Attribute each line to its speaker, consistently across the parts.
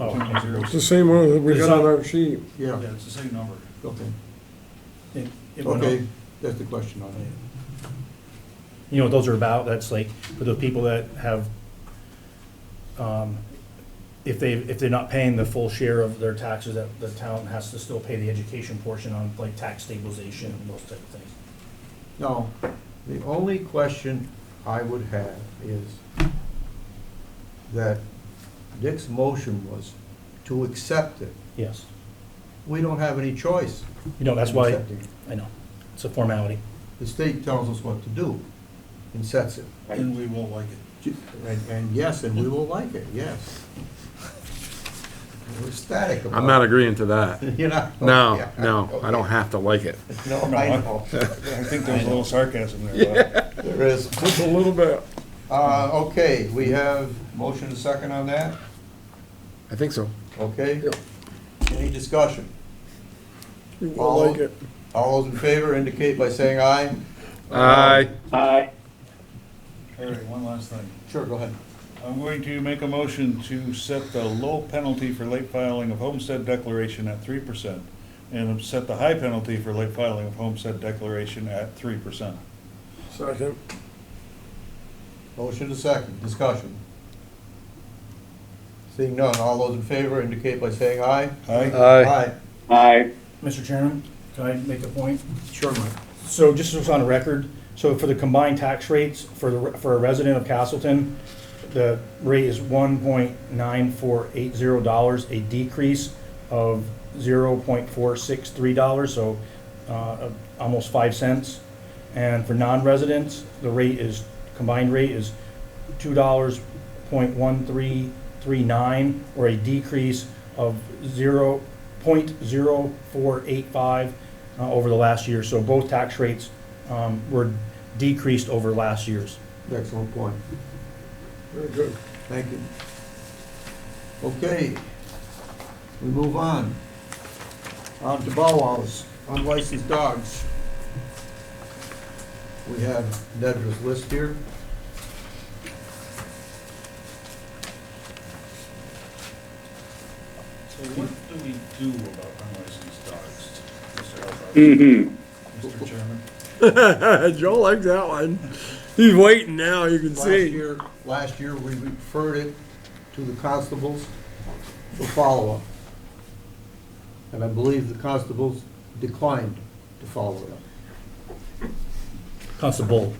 Speaker 1: Oh,
Speaker 2: Zero, zero.
Speaker 3: It's the same one that we got on our sheet.
Speaker 2: Yeah,
Speaker 1: Yeah, it's the same number.
Speaker 2: okay,
Speaker 1: It- it went up.
Speaker 2: okay, that's the question on it.
Speaker 4: You know what those are about? That's like for the people that have, um, if they, if they're not paying the full share of their taxes, that the town has to still pay the education portion on like tax stabilization and those type of things.
Speaker 2: Now, the only question I would have is that Dick's motion was to accept it.
Speaker 4: Yes.
Speaker 2: We don't have any choice.
Speaker 4: You know, that's
Speaker 2: in
Speaker 4: why,
Speaker 2: accepting it.
Speaker 4: I know, it's a formality.
Speaker 2: The state tells us what to do and sets it.
Speaker 1: And we will like it.
Speaker 2: And, and yes, and we will like it, yes. We're ecstatic about it.
Speaker 3: I'm not agreeing to that.
Speaker 2: You're not?
Speaker 3: No,
Speaker 2: Yeah,
Speaker 3: no, I don't
Speaker 2: okay.
Speaker 3: have to like it.
Speaker 2: No, I know,
Speaker 1: I think there was a little sarcasm there.
Speaker 2: there is.
Speaker 3: Just a little bit.
Speaker 2: Uh, okay, we have motion and second on that,
Speaker 3: I think so.
Speaker 2: okay?
Speaker 3: Yep.
Speaker 2: Any discussion?
Speaker 3: You will like it.
Speaker 2: All those in favor indicate by saying aye.
Speaker 3: Aye.
Speaker 1: All right, one last thing.
Speaker 2: Sure, go ahead.
Speaker 1: I'm going to make a motion to set the low penalty for late filing of homestead declaration at three percent and set the high penalty for late filing of homestead declaration at three percent.
Speaker 3: Second.
Speaker 2: Motion to second, discussion. Seeing none, all those in favor indicate by saying aye.
Speaker 1: Aye?
Speaker 3: Aye.
Speaker 4: Mr. Chairman, can I make a point?
Speaker 2: Sure, Mike.
Speaker 4: So just as on record, so for the combined tax rates for the, for a resident of Castleton, the rate is one point nine four eight zero dollars, a decrease of zero point four six three dollars, so, uh, almost five cents. And for non-residents, the rate is, combined rate is two dollars point one three three nine, or a decrease of zero point zero four eight five uh, over the last year. So both tax rates um, were decreased over last year's.
Speaker 2: Excellent point.
Speaker 3: Very good.
Speaker 2: Thank you. Okay, we move on. On to Bowows, unlicensed dogs. We have Nedra's list here.
Speaker 1: So what do we do about unlicensed dogs, Mr. Mr. Chairman?
Speaker 3: Joe likes that one. He's waiting now, you can
Speaker 2: Last
Speaker 3: see.
Speaker 2: year, last year, we referred it to the constables for follow-up. And I believe the constables declined to follow it up.
Speaker 4: Constable.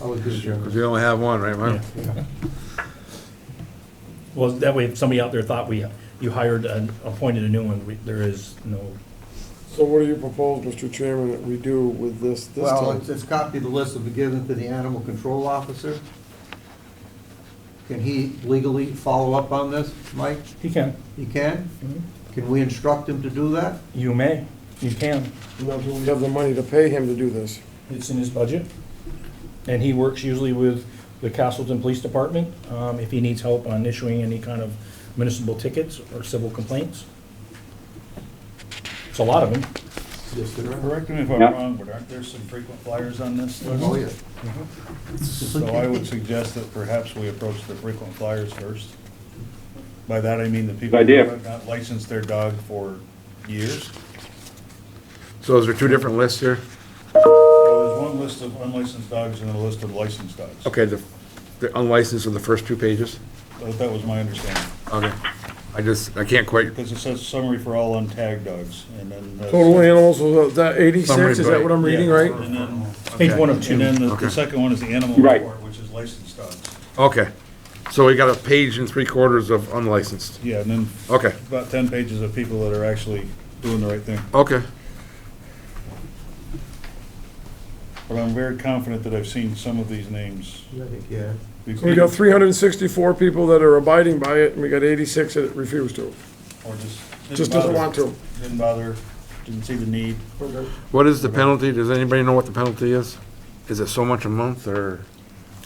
Speaker 2: I was good,
Speaker 3: Cause
Speaker 2: Jim.
Speaker 3: we only have one, right,
Speaker 4: yeah.
Speaker 3: Mike?
Speaker 4: Well, that way, if somebody out there thought we, you hired and appointed a new one, we- there is no,
Speaker 5: So what do you propose, Mr. Chairman, that we do with this, this
Speaker 2: Well,
Speaker 5: time?
Speaker 2: it's, it's copy the list that was given to the animal control officer. Can he legally follow up on this, Mike?
Speaker 4: he can.
Speaker 2: He can? Can we instruct him to do that?
Speaker 4: You may, you can.
Speaker 5: Now, do we have the money to pay him to do this?
Speaker 4: It's in his budget. And he works usually with the Castleton Police Department, um, if he needs help on issuing any kind of municipal tickets or civil complaints. It's a lot of them.
Speaker 2: Yes, there are.
Speaker 1: Correct me if I'm wrong, but aren't there some frequent flyers on this list?
Speaker 2: Oh, yeah.
Speaker 1: So I would suggest that perhaps we approach the frequent flyers first. By that, I mean the people who
Speaker 6: idea.
Speaker 1: have not licensed their dog for years.
Speaker 3: So those are two different lists here?
Speaker 1: Well, There's one list of unlicensed dogs and a list of licensed dogs.
Speaker 3: Okay, the, the unlicensed are the first two pages?
Speaker 1: That that was my understanding,
Speaker 3: Okay. I just, I can't quite,
Speaker 1: because it says summary for all untagged dogs, and then. the-
Speaker 5: Total animals, was that
Speaker 3: Summary,
Speaker 5: eighty-six, is that
Speaker 3: right.
Speaker 5: what I'm reading,
Speaker 1: Yeah,
Speaker 5: right?
Speaker 1: And then,
Speaker 4: Page one of
Speaker 1: and
Speaker 4: two.
Speaker 1: then the-
Speaker 3: Okay.
Speaker 1: the second one is the animal
Speaker 6: Right.
Speaker 1: report, which is licensed dogs.
Speaker 3: okay. So we got a page and three quarters of unlicensed.
Speaker 1: Yeah, and then
Speaker 3: Okay,
Speaker 1: about ten pages of people that are actually doing the right thing.
Speaker 3: okay.
Speaker 1: But I'm very confident that I've seen some of these names.
Speaker 2: I think, Yeah.
Speaker 5: So we got three hundred and sixty-four people that are abiding by it, and we got eighty-six that refuse to,
Speaker 1: Or just. didn't
Speaker 5: just doesn't
Speaker 1: bother.
Speaker 5: want to.
Speaker 1: Didn't bother, didn't see the need.
Speaker 3: What is the penalty? Does anybody know what the penalty is? Is it so much a month or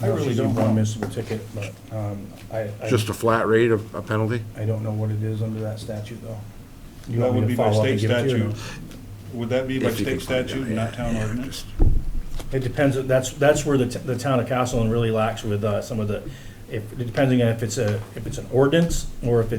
Speaker 1: I really
Speaker 4: Usually
Speaker 1: don't
Speaker 4: One
Speaker 1: know.
Speaker 4: municipal ticket, but, um, I, I,
Speaker 3: just a flat rate of a penalty?
Speaker 4: I don't know what it is under that statute though. You
Speaker 1: That
Speaker 4: want me
Speaker 1: would
Speaker 4: to
Speaker 1: be by
Speaker 4: follow up
Speaker 1: state
Speaker 4: and give it to you or
Speaker 1: statute.
Speaker 4: no?
Speaker 1: Would that be by
Speaker 3: If you can
Speaker 1: state
Speaker 3: find out,
Speaker 1: statute,
Speaker 3: yeah,
Speaker 1: not town ordinance?
Speaker 4: It depends, that's, that's where the, t- the town of Castleton really lacks with, uh, some of the, if, depending on if it's a, if it's an ordinance or if it's